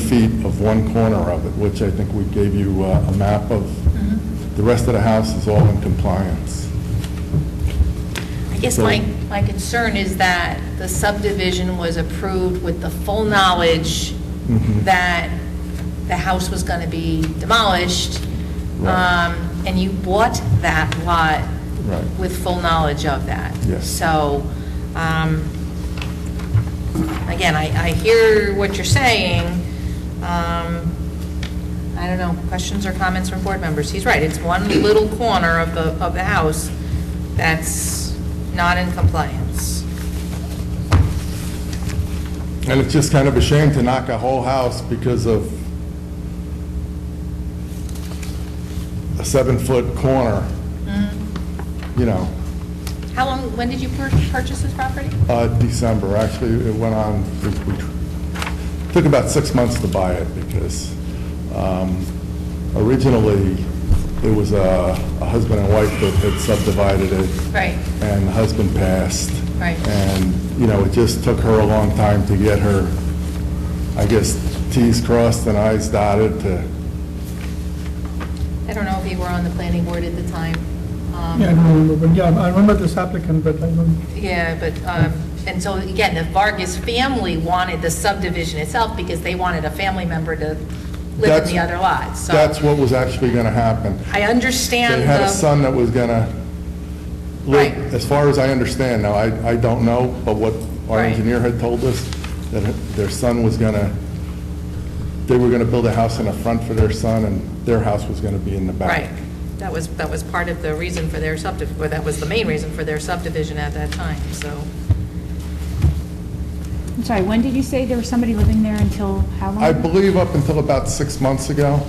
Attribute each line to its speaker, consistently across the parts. Speaker 1: feet of one corner of it, which I think we gave you uh, a map of. The rest of the house is all in compliance.
Speaker 2: I guess my, my concern is that the subdivision was approved with the full knowledge
Speaker 1: Mhm.
Speaker 2: that the house was going to be demolished,
Speaker 1: Right.
Speaker 2: um, and you bought that lot
Speaker 1: Right.
Speaker 2: with full knowledge of that.
Speaker 1: Yes.
Speaker 2: So, um, again, I, I hear what you're saying. Um, I don't know, questions or comments from board members? He's right, it's one little corner of the, of the house that's not in compliance.
Speaker 1: And it's just kind of a shame to knock a whole house because of a seven-foot corner, you know,
Speaker 2: How long, when did you pur- purchase this property?
Speaker 1: uh, December. Actually, it went on, we- we took about six months to buy it because um, originally, it was a a husband and wife that had subdivided it.
Speaker 2: Right.
Speaker 1: and the husband passed.
Speaker 2: Right.
Speaker 1: And, you know, it just took her a long time to get her, I guess, Ts crossed and Is dotted to,
Speaker 2: I don't know if you were on the planning board at the time. Um,
Speaker 3: Yeah, I don't remember, but yeah, I remember this applicant, but I don't,
Speaker 2: Yeah, but, um, and so again, the Vargas family wanted the subdivision itself because they wanted a family member to live in
Speaker 1: That's-
Speaker 2: the other lot, so.
Speaker 1: that's what was actually going to happen.
Speaker 2: I understand
Speaker 1: They
Speaker 2: the.
Speaker 1: had a
Speaker 4: um,
Speaker 1: son that was going to
Speaker 2: Right.
Speaker 1: live, as far as I understand, now, I, I don't know, but what our
Speaker 2: Right.
Speaker 1: engineer had told us, that their son was going to, they were going to build a house in the front for their son, and their house was going to be in the back.
Speaker 2: Right. That was, that was part of the reason for their subdivision, or that was the main reason for their subdivision at that time, so.
Speaker 4: I'm sorry, when did you say there was somebody living there until how long?
Speaker 1: I believe up until about six months ago.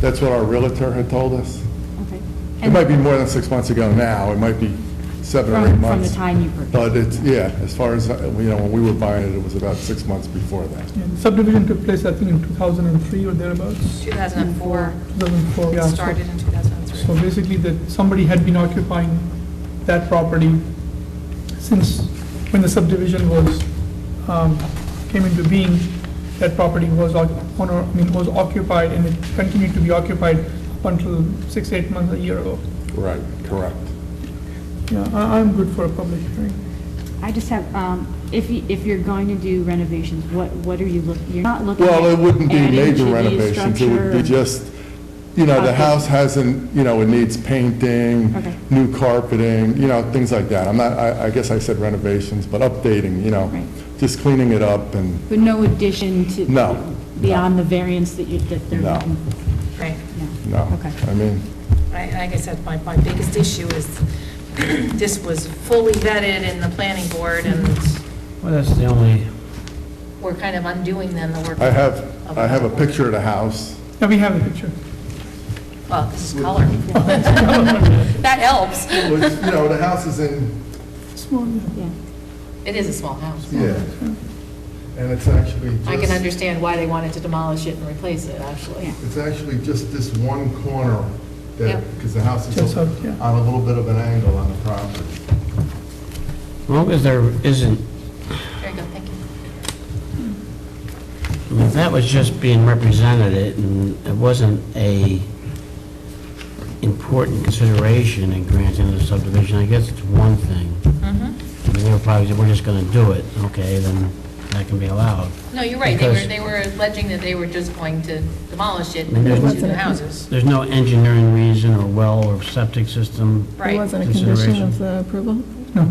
Speaker 1: That's what our realtor had told us.
Speaker 4: Okay.
Speaker 1: It might be more than six months ago now, it might be seven or
Speaker 4: From-
Speaker 1: eight
Speaker 4: from the
Speaker 1: months.
Speaker 4: time you purchased.
Speaker 1: But it's, yeah, as far as, uh, you know, when we were buying it, it was about six months before that.
Speaker 3: yeah, subdivision took place, I think, in 2003 or thereabouts,
Speaker 2: 2004,
Speaker 3: 2004, yeah.
Speaker 2: it
Speaker 3: so-
Speaker 2: started in 2003.
Speaker 3: So basically, that somebody had been occupying that property since, when the subdivision was, um, came into being, that property was oc- owner, I mean, was occupied, and it continued to be occupied up until six, eight months, a year ago.
Speaker 1: Right, correct.
Speaker 3: Yeah, I- I'm good for a public hearing.
Speaker 4: I just have, um, if you, if you're going to do renovations, what, what are you looking, you're not looking at
Speaker 1: Well, it wouldn't be
Speaker 4: adding to
Speaker 1: major
Speaker 4: the
Speaker 1: renovations, it would be
Speaker 4: E structure?
Speaker 1: just, you know, the
Speaker 4: Okay.
Speaker 1: house hasn't, you know, it needs painting,
Speaker 4: Okay.
Speaker 1: new carpeting, you know, things like that. I'm not, I I guess I said renovations, but updating, you know,
Speaker 4: Right.
Speaker 1: just cleaning it up and
Speaker 4: But no addition to?
Speaker 1: No, no.
Speaker 4: Beyond the variance that you, that they're
Speaker 1: No.
Speaker 4: looking?
Speaker 2: Right.
Speaker 1: No.
Speaker 4: Okay.
Speaker 1: I mean,
Speaker 2: I- Like I said, my, my biggest issue is this was fully vetted in the planning board and
Speaker 5: Well, that's the only,
Speaker 2: we're kind of undoing then the work.
Speaker 1: I have, I have a picture of the house.
Speaker 3: Yeah, we have a picture.
Speaker 2: Well, this is color. That helps.
Speaker 1: Which, you know, the house is in,
Speaker 3: Small, yeah.
Speaker 4: Yeah.
Speaker 2: It is a small house.
Speaker 1: yeah, and it's actually
Speaker 2: I can
Speaker 1: just,
Speaker 2: understand why they wanted to demolish it and replace it, actually.
Speaker 1: it's actually just this one corner
Speaker 2: Yeah.
Speaker 1: that, because the house
Speaker 3: Just
Speaker 1: is
Speaker 3: up, yeah.
Speaker 1: on a little bit of an angle on the property.
Speaker 5: as long as there isn't,
Speaker 2: There you go, thank you.
Speaker 5: I mean, if that was just being represented and it wasn't a important consideration in granting the subdivision, I guess it's one thing. I mean, they were probably, we're just going to do it, okay, then that can be allowed.
Speaker 2: No, you're right, they were,
Speaker 5: Because-
Speaker 2: they were alleging that they were just going to demolish it
Speaker 5: I mean,
Speaker 2: and
Speaker 5: there's-
Speaker 2: build two new houses.
Speaker 5: There's no engineering reason or well or septic system.
Speaker 6: It
Speaker 2: Right.
Speaker 6: wasn't a condition
Speaker 5: Consideration.
Speaker 6: of the approval?
Speaker 3: No,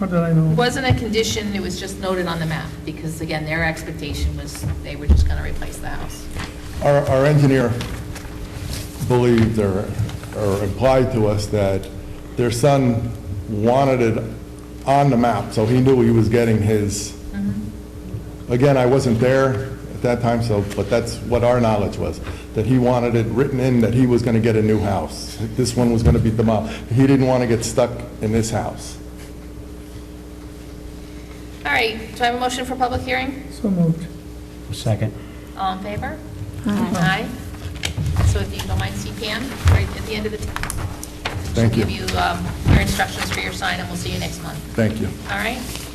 Speaker 3: not that I know. of.
Speaker 2: Wasn't a condition, it was just noted on the map, because again, their expectation was they were just going to replace the house.
Speaker 1: Our, our engineer believed or, or implied to us that their son wanted it on the map, so he knew he was getting his. Again, I wasn't there at that time, so, but that's what our knowledge was, that he wanted it written in that he was gonna get a new house. This one was gonna be demolished. He didn't wanna get stuck in this house.
Speaker 2: All right, do I have a motion for public hearing?
Speaker 3: So moved.
Speaker 5: Second.
Speaker 2: All in favor? Aye. So if you don't mind, see Pam, right at the end of the...
Speaker 1: Thank you.
Speaker 2: She'll give you um, your instructions for your sign, and we'll see you next month,
Speaker 1: Thank you.
Speaker 2: all right?